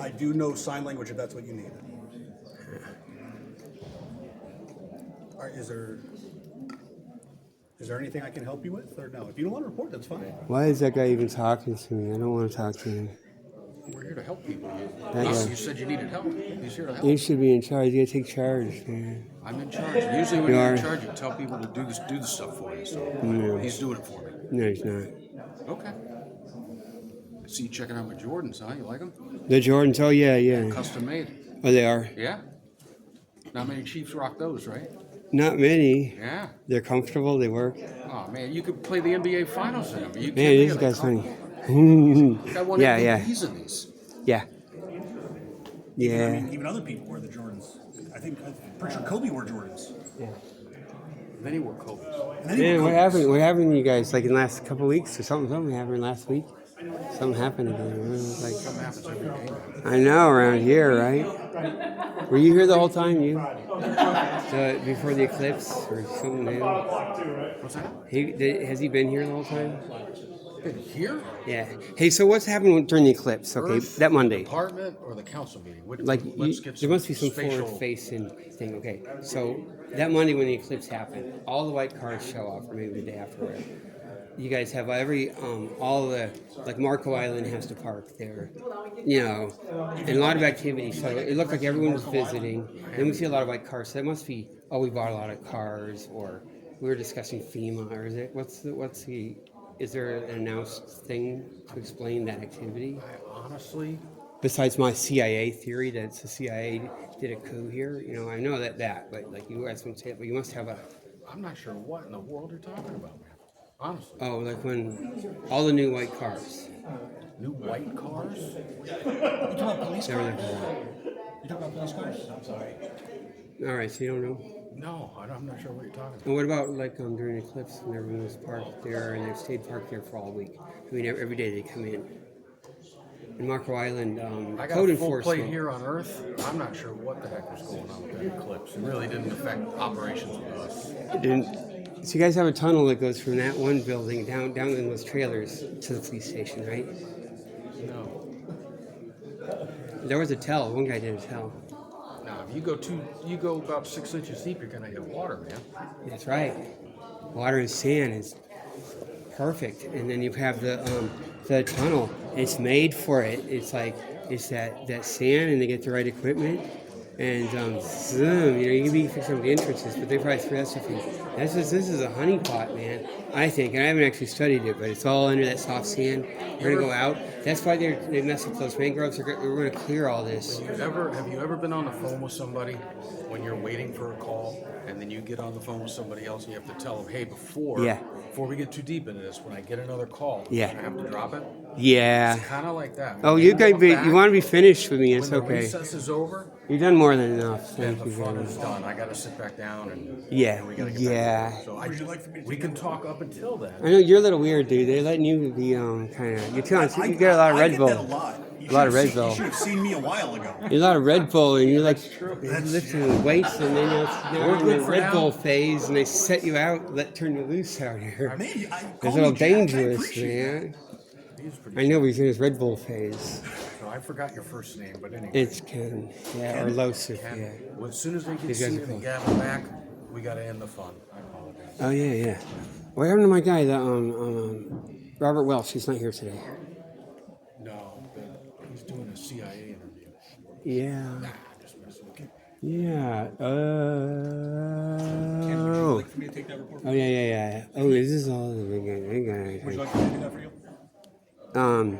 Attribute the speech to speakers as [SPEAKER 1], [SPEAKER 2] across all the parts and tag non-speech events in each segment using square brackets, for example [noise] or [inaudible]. [SPEAKER 1] I do know sign language if that's what you need. All right, is there, is there anything I can help you with, or no? If you don't want to report, that's fine.
[SPEAKER 2] Why is that guy even talking to me? I don't want to talk to him.
[SPEAKER 3] We're here to help people. You,
[SPEAKER 2] Thank
[SPEAKER 3] you,
[SPEAKER 2] you.
[SPEAKER 3] you said you needed help. He's here to
[SPEAKER 2] You
[SPEAKER 3] help.
[SPEAKER 2] should be in charge. You gotta take charge, man.
[SPEAKER 3] I'm in charge. Usually when
[SPEAKER 2] You
[SPEAKER 3] you're
[SPEAKER 2] are.
[SPEAKER 3] in charge, you tell people to do this, do the stuff for you. So he's doing it for me.
[SPEAKER 2] No, he's not.
[SPEAKER 3] Okay. I see you checking out my Jordans, huh? You like them?
[SPEAKER 2] The Jordans. Oh yeah, yeah.
[SPEAKER 3] Custom made.
[SPEAKER 2] Oh, they are.
[SPEAKER 3] Yeah. Not many Chiefs rock those, right?
[SPEAKER 2] Not many.
[SPEAKER 3] Yeah.
[SPEAKER 2] They're comfortable. They work.
[SPEAKER 3] Oh man, you could play the NBA Finals in them. You
[SPEAKER 2] Man, this guy's funny. yeah, yeah,
[SPEAKER 3] He's in these.
[SPEAKER 2] [laughs] yeah,
[SPEAKER 1] I
[SPEAKER 2] yeah.
[SPEAKER 1] mean, even other people wear the Jordans. I think, I'm pretty sure Kobe wore Jordans.
[SPEAKER 3] Then he wore Kobe's.
[SPEAKER 1] And then he
[SPEAKER 2] Man,
[SPEAKER 1] wore
[SPEAKER 2] what
[SPEAKER 1] Kobe's.
[SPEAKER 2] happened? What happened to you guys? Like in the last couple weeks or something? Something happened last week. Something happened again. It was like
[SPEAKER 3] Something happens every day.
[SPEAKER 2] I know around here, right? Were you here the whole time? You the, before the eclipse or something? man?
[SPEAKER 3] What's that?
[SPEAKER 2] He, the, has he been here the whole time?
[SPEAKER 3] Been here?
[SPEAKER 2] Yeah. Hey, so what's happened during the eclipse? Okay,
[SPEAKER 3] Earth,
[SPEAKER 2] that Monday.
[SPEAKER 3] Department or the council meeting? What-
[SPEAKER 2] Like,
[SPEAKER 3] let's
[SPEAKER 2] you,
[SPEAKER 3] get
[SPEAKER 2] there must be some
[SPEAKER 3] spatial-
[SPEAKER 2] forward-facing thing. Okay, so that Monday when the eclipse happened, all the white cars show up, or maybe the day after. it. You guys have every, um, all the, like Marco Island has to park there, you know, and a lot of activity. So it looked like everyone was visiting. Then we see a lot of white cars. So that must be, oh, we bought a lot of cars, or we were discussing FEMA, or is it what's the what's the is there an announced thing to explain that activity?
[SPEAKER 3] I honestly,
[SPEAKER 2] besides my CIA theory that it's the CIA did a coup here, you know, I know that that, but like you guys don't say it, but you must have a
[SPEAKER 3] I'm not sure what in the world you're talking about, man. Honestly,
[SPEAKER 2] oh, like when all the new white cars.
[SPEAKER 3] new white cars?
[SPEAKER 1] You talking about police
[SPEAKER 2] They were
[SPEAKER 1] cars?
[SPEAKER 2] there for
[SPEAKER 1] You talking about police cars? I'm sorry.
[SPEAKER 2] that. All right, so you don't know.
[SPEAKER 3] No, I don't- I'm not sure what you're talking about.
[SPEAKER 2] And what about like um, during the eclipse when everyone was parked there and they've stayed parked there for all week? I mean, every day they come in. In Marco Island, um,
[SPEAKER 3] I got
[SPEAKER 2] code
[SPEAKER 3] a full plate
[SPEAKER 2] enforcement.
[SPEAKER 3] here on Earth. I'm not sure what the heck was going on with that eclipse. It really didn't affect operations with us.
[SPEAKER 2] And so you guys have a tunnel that goes from that one building down down in those trailers to the police station, right?
[SPEAKER 3] No.
[SPEAKER 2] There was a tell. One guy did a tell.
[SPEAKER 3] Now, if you go two, you go about six inches deep, you're gonna hit water, man.
[SPEAKER 2] That's right. Water and sand is perfect, and then you have the um, the tunnel. It's made for it. It's like it's that that sand, and they get the right equipment, and um, zoom. You know, you can be fixing up the entrances, but they probably threw that stuff in. That's just this is a honeypot, man. I think, and I haven't actually studied it, but it's all under that soft sand. We're gonna go out. That's why they're they mess up those mangroves. They're, go- we're gonna clear all this.
[SPEAKER 3] You ever have you ever been on the phone with somebody when you're waiting for a call and then you get on the phone with somebody else and you have to tell them, hey, before
[SPEAKER 2] Yeah.
[SPEAKER 3] before we get too deep into this, when I get another call,
[SPEAKER 2] Yeah.
[SPEAKER 3] I have to drop it.
[SPEAKER 2] Yeah.
[SPEAKER 3] It's kind of like that.
[SPEAKER 2] Oh,
[SPEAKER 3] When
[SPEAKER 2] you guys,
[SPEAKER 3] come
[SPEAKER 2] be,
[SPEAKER 3] back,
[SPEAKER 2] you want to be finished with me? It's
[SPEAKER 3] when the
[SPEAKER 2] okay.
[SPEAKER 3] recess is over
[SPEAKER 2] You've done more than enough. Thank
[SPEAKER 3] and the
[SPEAKER 2] you very
[SPEAKER 3] fun
[SPEAKER 2] much.
[SPEAKER 3] is done, I got to sit back down and
[SPEAKER 2] Yeah,
[SPEAKER 3] and we gotta get
[SPEAKER 2] yeah.
[SPEAKER 3] Back to work. so I,
[SPEAKER 1] Would you like for me to
[SPEAKER 3] we
[SPEAKER 1] take
[SPEAKER 3] can
[SPEAKER 1] it?
[SPEAKER 3] talk up until then.
[SPEAKER 2] I know you're a little weird, dude. They're letting you be um kind of. You're telling you get a lot of
[SPEAKER 1] I
[SPEAKER 2] Red
[SPEAKER 1] get
[SPEAKER 2] Bull.
[SPEAKER 1] That a lot. You
[SPEAKER 2] A lot
[SPEAKER 1] should've
[SPEAKER 2] of Red
[SPEAKER 1] seen-
[SPEAKER 2] Bull.
[SPEAKER 1] You should have seen me a while ago.
[SPEAKER 2] You're a lot of Red Bull, and you're like
[SPEAKER 1] That's-
[SPEAKER 2] lifting weights, and then you're, now
[SPEAKER 3] We're
[SPEAKER 2] you're in
[SPEAKER 3] good
[SPEAKER 2] the
[SPEAKER 3] for
[SPEAKER 2] Red
[SPEAKER 3] now.
[SPEAKER 2] Bull phase, and they set you out, let turn you loose out here.
[SPEAKER 1] Man, you- I,
[SPEAKER 2] It's
[SPEAKER 1] call
[SPEAKER 2] a little
[SPEAKER 1] me Jack, I
[SPEAKER 2] dangerous,
[SPEAKER 1] appreciate it.
[SPEAKER 2] man.
[SPEAKER 3] He's pretty.
[SPEAKER 2] I know he's in his Red Bull phase.
[SPEAKER 3] So I forgot your first name, but anyway.
[SPEAKER 2] It's Ken, yeah, or Losif,
[SPEAKER 3] And
[SPEAKER 2] yeah.
[SPEAKER 3] well, as soon as they get
[SPEAKER 2] These guys
[SPEAKER 3] seated
[SPEAKER 2] are
[SPEAKER 3] and
[SPEAKER 2] cool.
[SPEAKER 3] gavel back, we got to end the fun. I apologize.
[SPEAKER 2] Oh yeah, yeah. What happened to my guy, the um, um Robert Welsh? He's not here today.
[SPEAKER 3] No, but he's doing a CIA interview.
[SPEAKER 2] Yeah,
[SPEAKER 3] Ah, just messing with you.
[SPEAKER 2] yeah.
[SPEAKER 1] Would you
[SPEAKER 2] Oh.
[SPEAKER 1] like for me to take that report?
[SPEAKER 2] Oh yeah, yeah, yeah. yeah. Oh, is this all? I got- I got it.
[SPEAKER 1] Would you like me to do that for you?
[SPEAKER 2] Um.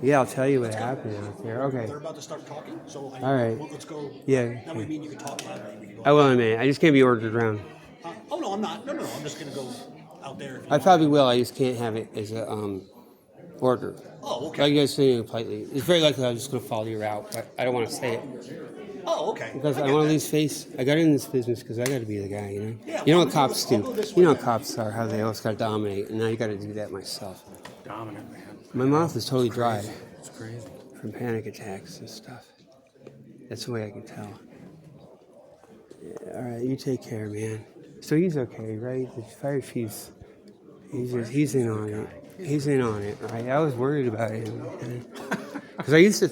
[SPEAKER 2] Yeah, I'll tell you what happened out there. Okay.
[SPEAKER 1] They're about to start talking, so I,
[SPEAKER 2] All right.
[SPEAKER 1] well, let's go.
[SPEAKER 2] Yeah.
[SPEAKER 1] That way, me and you can talk loudly. We can go.
[SPEAKER 2] I will in a minute. I just can't be ordered around.
[SPEAKER 1] Uh, oh no, I'm not. No, no, no. I'm just gonna go out there. if you
[SPEAKER 2] I
[SPEAKER 1] want.
[SPEAKER 2] probably will. I just can't have it as a um order.
[SPEAKER 1] Oh,
[SPEAKER 2] Like
[SPEAKER 1] okay.
[SPEAKER 2] you guys saying it politely. It's very likely I'm just gonna follow you out, but I don't want to say it
[SPEAKER 1] Oh, okay.
[SPEAKER 2] because I,
[SPEAKER 1] get
[SPEAKER 2] want to
[SPEAKER 1] that.
[SPEAKER 2] lose face. I got in this business because I got to be the guy, you know.
[SPEAKER 1] Yeah,
[SPEAKER 2] you know
[SPEAKER 1] well,
[SPEAKER 2] what
[SPEAKER 1] I'll go-
[SPEAKER 2] cops
[SPEAKER 1] I'll go
[SPEAKER 2] do.
[SPEAKER 1] this
[SPEAKER 2] You know
[SPEAKER 1] way
[SPEAKER 2] what
[SPEAKER 1] now.
[SPEAKER 2] cops are. How they always got to dominate, and now you got to do that myself.
[SPEAKER 3] Dominant man.
[SPEAKER 2] My mouth is totally dry.
[SPEAKER 3] It's crazy.
[SPEAKER 2] from panic attacks and stuff. That's the way I can tell. Yeah, all right, you take care, man. So he's okay, right? The fire chief's he's just, he's in on it. He's in on it, right? I was worried about him. Because I used to